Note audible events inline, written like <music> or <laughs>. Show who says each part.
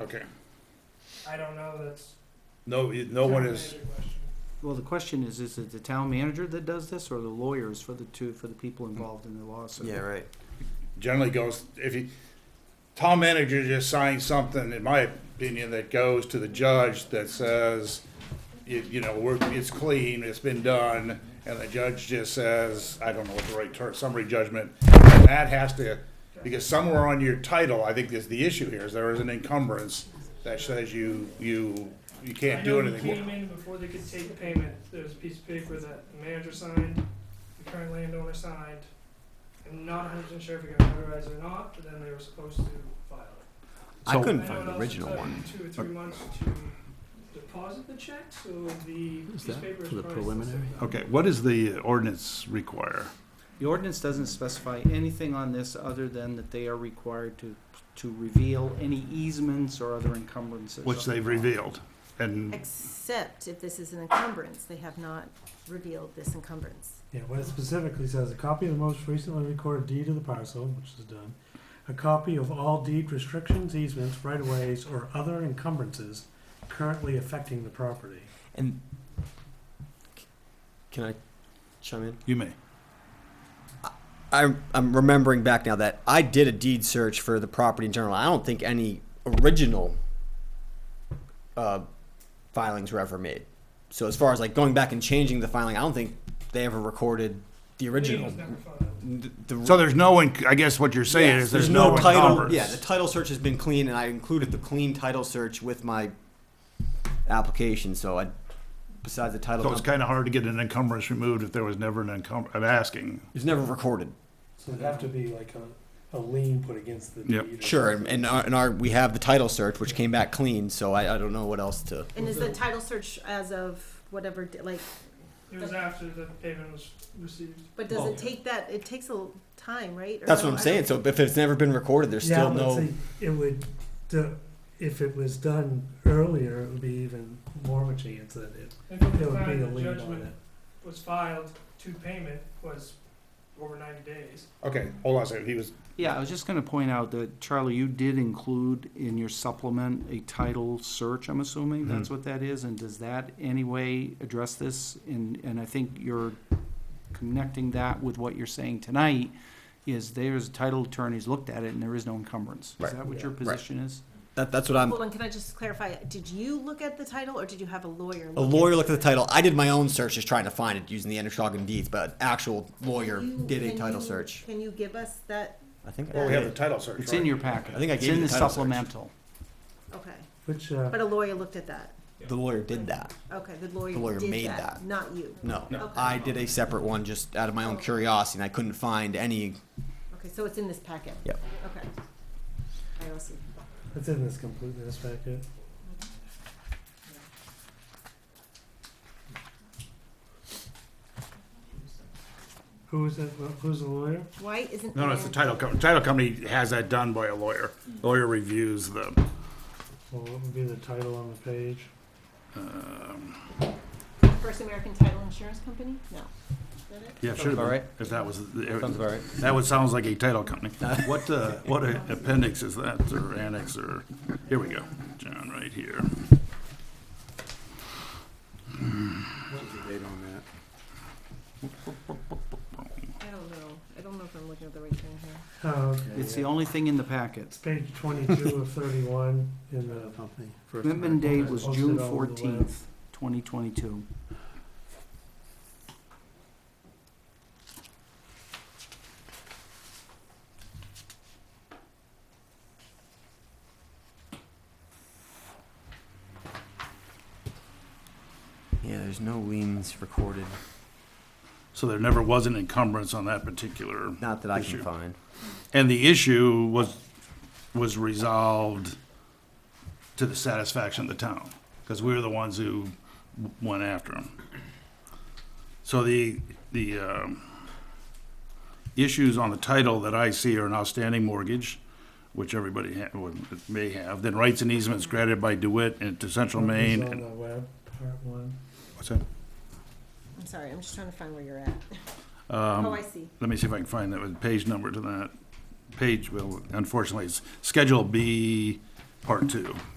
Speaker 1: Okay.
Speaker 2: I don't know, that's.
Speaker 1: No, you- no one is,
Speaker 3: Well, the question is, is it the town manager that does this or the lawyers for the two, for the people involved in the lawsuit?
Speaker 4: Yeah, right.
Speaker 1: generally goes, if you, town manager just signs something, in my opinion, that goes to the judge that says, you, you know, we're, it's clean, it's been done, and the judge just says, I don't know what the right term, summary judgment. And that has to, because somewhere on your title, I think is the issue here, is there is an encumbrance that says you, you, you can't do anything.
Speaker 2: I know we came in before they could take payment, there was a piece of paper that the manager signed, the current landowner signed. I'm not hundred percent sure if it got notarized or not, but then they were supposed to file it.
Speaker 4: I
Speaker 3: So-
Speaker 4: couldn't
Speaker 2: I know
Speaker 4: find
Speaker 2: it
Speaker 4: the
Speaker 2: also
Speaker 4: original
Speaker 2: took
Speaker 4: one.
Speaker 2: Two or three months to deposit the check, so the piece of
Speaker 4: that
Speaker 2: paper is
Speaker 4: for
Speaker 2: probably still
Speaker 4: the preliminary?
Speaker 2: sitting there.
Speaker 1: Okay, what does the ordinance require?
Speaker 3: The ordinance doesn't specify anything on this other than that they are required to, to reveal any easements or other encumbrances.
Speaker 1: Which they've revealed, and
Speaker 5: Except if this is an encumbrance, they have not revealed this encumbrance.
Speaker 6: Yeah, what it specifically says, a copy of the most recently recorded deed of the parcel, which is done, a copy of all deed restrictions, easements, right-of-ways, or other encumbrances currently affecting the property.
Speaker 4: And c- can I chime in?
Speaker 1: you may.
Speaker 4: I'm, I'm remembering back now that I did a deed search for the property in general. I don't think any original uh, filings were ever made. So as far as like going back and changing the filing, I don't think they ever recorded the
Speaker 2: Lien
Speaker 4: original.
Speaker 2: was never filed.
Speaker 4: The, the-
Speaker 1: So there's no, enc- I guess what you're saying
Speaker 4: Yes,
Speaker 1: is there's no
Speaker 4: title.
Speaker 1: encumbrance.
Speaker 4: Yeah, the title search has been clean, and I included the clean title search with my application. So I, besides the title,
Speaker 1: So it's
Speaker 4: company,
Speaker 1: kind of hard to get an encumbrance removed if there was never an encumbrance, I'm asking.
Speaker 4: it was never recorded.
Speaker 6: So it'd have to be like a, a lien put against the deed.
Speaker 1: Yep.
Speaker 6: or
Speaker 4: Sure,
Speaker 6: something.
Speaker 4: and, and, our, and our we have the title search, which came back clean. So I, I don't know what else to.
Speaker 5: And is the title search as of whatever, di- like,
Speaker 2: It was after the payment was received.
Speaker 5: but does
Speaker 4: Well-
Speaker 5: it take that, it takes a l- time, right? Or
Speaker 4: That's what
Speaker 5: no,
Speaker 4: I'm
Speaker 5: I
Speaker 4: saying.
Speaker 5: don't-
Speaker 4: So if it's never been recorded, there's
Speaker 6: Yeah,
Speaker 4: still
Speaker 6: but
Speaker 4: no.
Speaker 6: see, It would, the- if it was done earlier, it would be even more of a chance that it,
Speaker 2: And from
Speaker 6: there
Speaker 2: the
Speaker 6: would be a
Speaker 2: time the
Speaker 6: lien on
Speaker 2: judgment
Speaker 6: it.
Speaker 2: was filed to payment was over ninety days.
Speaker 1: Okay, hold on a second, he was,
Speaker 3: Yeah, I was just gonna point out that, Charlie, you did include in your supplement a title search, I'm assuming, that's
Speaker 4: Mm-hmm.
Speaker 3: what that is? And does that anyway address this? And, and I think you're connecting that with what you're saying tonight, is there's, title attorneys looked at it and there is no encumbrance. Is
Speaker 4: Right.
Speaker 3: that what your
Speaker 4: Right.
Speaker 3: position is?
Speaker 4: That, that's what I'm.
Speaker 5: Hold on, can I just clarify, did you look at the title or did you have a lawyer?
Speaker 4: A
Speaker 5: look
Speaker 4: lawyer looked at the title. I did my own search, just trying to find it using the Anashogam deeds, but an actual lawyer
Speaker 5: Can you-
Speaker 4: did a
Speaker 5: can
Speaker 4: title
Speaker 5: you-
Speaker 4: search.
Speaker 5: Can you give us that,
Speaker 4: I think. I
Speaker 1: well, we
Speaker 4: did.
Speaker 1: have the title search,
Speaker 3: It's in
Speaker 1: right?
Speaker 3: your packet.
Speaker 4: I think I
Speaker 3: It's
Speaker 4: gave
Speaker 3: in the
Speaker 4: you the title search.
Speaker 3: supplemental.
Speaker 5: okay,
Speaker 6: which, uh,
Speaker 5: but a lawyer looked at that,
Speaker 4: The lawyer did that.
Speaker 5: okay, the lawyer
Speaker 4: The lawyer
Speaker 5: did
Speaker 4: made
Speaker 5: that,
Speaker 4: that.
Speaker 5: not you.
Speaker 4: No,
Speaker 5: No. Okay.
Speaker 4: I did a separate one just out of my own curiosity, and I couldn't find any.
Speaker 5: Okay, so it's in this packet?
Speaker 4: Yep.
Speaker 5: Okay. I also,
Speaker 6: it's in this completeness packet. Who is that, who's the lawyer?
Speaker 5: why isn't?
Speaker 1: No, no, it's the
Speaker 5: Ann-
Speaker 1: title company, title company has that done by a lawyer. Lawyer reviews the,
Speaker 6: Well, what would be the title on the page?
Speaker 1: um,
Speaker 5: First American Title Insurance Company? No. Is that it?
Speaker 1: yeah, it should have
Speaker 4: about
Speaker 1: been,
Speaker 4: right.
Speaker 1: if that was,
Speaker 4: Sounds
Speaker 1: the-
Speaker 4: about right.
Speaker 1: that would, sounds like a title company.
Speaker 4: <laughs>
Speaker 1: What, uh, what a- appendix is that, or annex, or, here we go, John, right here.
Speaker 5: I don't know. I don't know if I'm looking at the right thing here.
Speaker 6: Oh, okay.
Speaker 3: It's the only thing in the packet.
Speaker 6: It's page twenty-two of thirty-one in the. First
Speaker 3: Commitment date was
Speaker 6: Posted
Speaker 3: June
Speaker 6: all over the web.
Speaker 3: fourteenth, twenty twenty-two.
Speaker 4: Yeah, there's no liens recorded.
Speaker 1: So there never was an encumbrance on that particular
Speaker 4: Not that I
Speaker 1: Issue.
Speaker 4: can find.
Speaker 1: And the issue was, was resolved to the satisfaction of the town, because we were the ones who w- went after them. So the, the, um, issues on the title that I see are an outstanding mortgage, which everybody ha- would- may have, then rights and easements granted by DeWitt and to Central
Speaker 6: It's
Speaker 1: Maine.
Speaker 6: On
Speaker 1: and-
Speaker 6: the web, part one.
Speaker 1: what's that?
Speaker 5: I'm sorry. I'm just trying to find where you're at.
Speaker 1: Um,
Speaker 5: oh, I see.
Speaker 1: let me see if I can find that with page number to that. Page, well, unfortunately, it's Schedule B part two.